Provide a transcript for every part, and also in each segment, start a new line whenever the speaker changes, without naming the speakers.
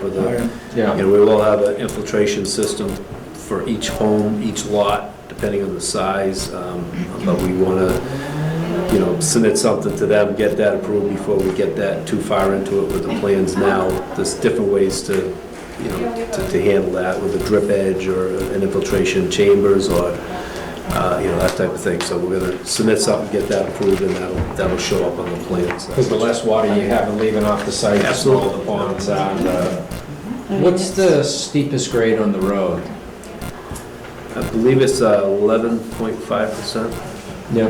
the, you
Yeah,
know, we will have an infiltration system for each home, each lot, depending on the size, um, but we want to, you know, submit something to them, get that approved before we get that too far into it with the plans now. There's different ways to, you know, to to handle that with a drip edge or an infiltration chambers or, uh, you know, that type of thing. So we're going to submit something, get that approved, and that'll, that'll show up on the plans.
because the less water you have leaving off the site, the smaller the ponds are. uh, What's the steepest grade on the road?
I believe it's uh, eleven point five percent.
Yeah.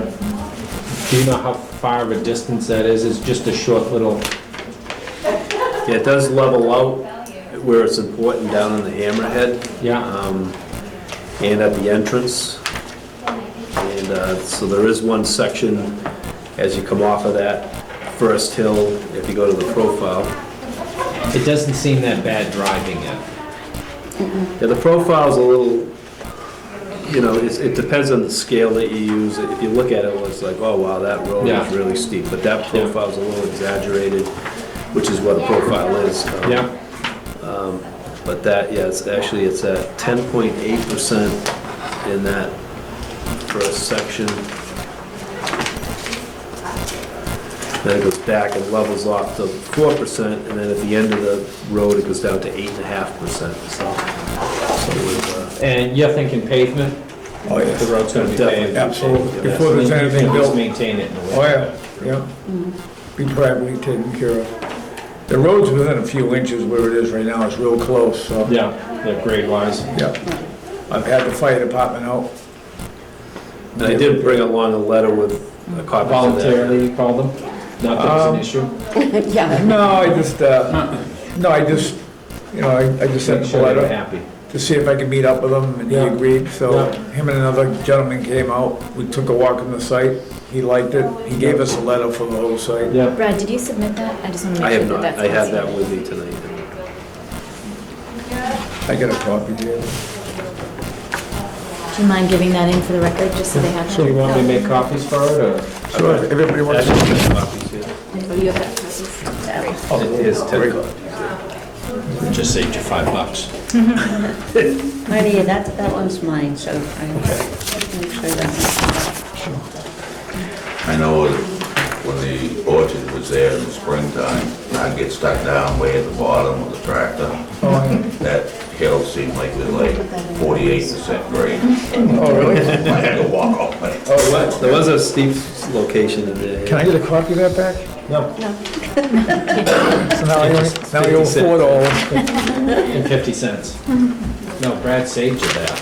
Do you know how far of a distance that is? It's just a short little,
Yeah, it does level out where it's important down in the hammerhead,
yeah,
um, and at the entrance. And, uh, so there is one section as you come off of that first hill, if you go to the profile.
uh, it doesn't seem that bad driving it.
Yeah, the profile's a little, you know, it's, it depends on the scale that you use. If you look at it, it's like, oh wow, that road
Yeah.
is really steep, but that profile's a little exaggerated, which is what a profile is. um,
Yeah,
But that, yeah, it's actually, it's at ten point eight percent in that first section. Then it goes back and levels off to four percent, and then at the end of the road, it goes down to eight and a half percent, so. so we've, uh,
and you're thinking pavement?
Oh,
The
yes,
road's gonna be
Definitely.
paved.
absolutely.
Yeah.
Before there's anything
At least
built.
Maintain it in a way.
Oh, yeah, yeah. Be privately taken care of. The road's within a few inches where it is right now, it's real close, so.
Yeah, yeah, grade wise.
Yeah. I've had the fire department out.
And I did bring along a letter with a copy of that.
Voluntarily, you call them? Not that it's
Um,
an issue?
Yeah,
No, I just, uh, no, I just, you know, I I just sent
Make
him a
sure they're
letter
happy.
to see if I could meet up with him, and he
Yeah.
agreed, so
Yeah.
him and another gentleman came out, we took a walk on the site, he liked it, he gave us a letter for the whole site.
Yeah,
Brad, did you submit that? I just want to
I
make
have
sure
not,
that that's.
I have
possible.
that with me tonight.
I got a copy here.
Do you mind giving that in for the record, just so they have that?
do you want me to make copies for it, or?
So if everybody wants to...
Actually, my copies here.
Oh, you have that copy? Sorry.
It is ten copies.
Just saved you five bucks.
Marty, that, that one's mine, so I make sure that.
I know when the orchard was there in the springtime, I'd get stuck down way at the bottom with the tractor.
Oh,
That hill seemed like it was like forty-eight percent grade.
Oh, really?
I had to walk all the way.
Oh, what?
There was a steep location in there.
Can I get a copy of that back?
No,
So now I only, now I owe four dollars.
and fifty cents. No, Brad saved you that.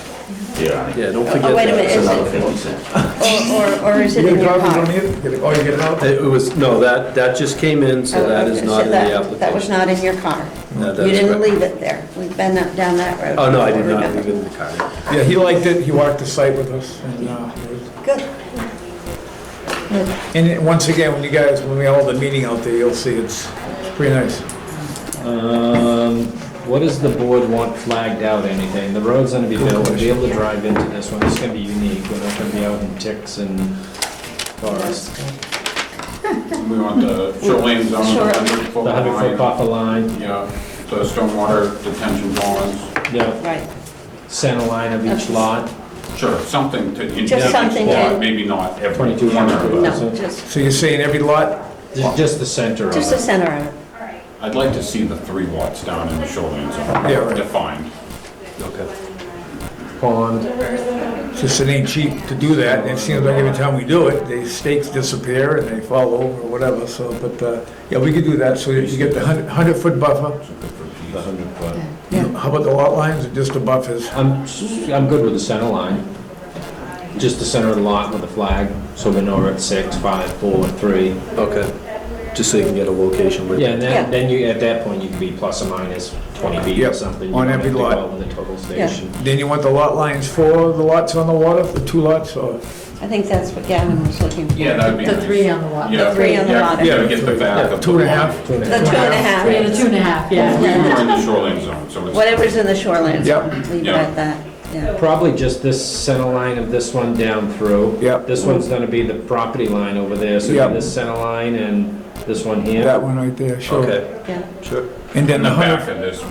Yeah, I think
Yeah, don't forget that.
Oh, wait a minute,
it's
is
another fifty cents.
Or, or, or is
You
it
get
in
a
your
copy, don't
car?
you? Get it- Oh, you get it out?
It was, no, that, that just came in, so that is
Oh, Okay,
not
so
in the
that-
application.
That was not in your car.
No,
You
that's
didn't
correct.
leave it there. We've been up, down that road.
Oh, no, I did
before,
not leave
remember?
it in the car.
Yeah, he liked it, he walked the site with us, and, uh, it was-
Good.
and it- once again, when you guys, when we hold the meeting out there, you'll see it's, it's pretty nice.
Um, what does the board want flagged out, anything? The road's gonna be built, we'll be able to drive into this one, it's gonna be unique, we're not gonna be out in ticks and forests.
We want the shoreline zone,
Sure.
the hundred foot
The hundred foot
line.
buffer line,
Yeah, the stormwater detention ponds.
yeah,
Right.
center line of each lot,
Sure, something to. in
Just
each
something
lot,
to-
Maybe not every
twenty-two
corner
hundred.
of it.
No, just,
So you're saying every lot,
Just, just the center of
just the
it.
center of it.
I'd like to see the three lots down in the shoreline
Yeah, right.
zone defined.
Okay.
Pond,
just it ain't cheap to do that, and it seems like every time we do it, the stakes disappear and they fall over or whatever, so, but, uh, yeah, we could do that, so that you get the hundred, hundred foot buffer. How about the lot lines or just the buffers?
I'm, I'm good with the center line. Just the center of the lot with the flag, so we know we're at six, five, four, three.
Okay, just so you can get a location with it.
Yeah, and
Yeah.
then, then you, at that point, you can be plus or minus 20 feet or
Yep,
something. You
on
don't
every
have to go
lot.
out With a total station.
Then you want the lot lines for the lots on the water, the two lots, or?
I think that's what Gavin was looking for.
Yeah, that'd be nice.
on the lot.
Yeah.
the three on the
Yeah,
lot.
Yeah, to get the back of.
Two and a
the lot.
half?
Two and a
The
half.
two and a half.
Yeah, the two and a half,
We
yeah.
were in the shoreline zone, so it's.
Whatever's in the
Yep.
shoreline zone, leave it
Yeah.
at that, yeah.
Probably just this center line of this one down through.
Yep.
This one's gonna be the property line over there, so
Yep.
this center line and this one here.
That one right there, sure.
Okay,
Yeah.
sure.
And then
In the
the
back
hundred,
of this one.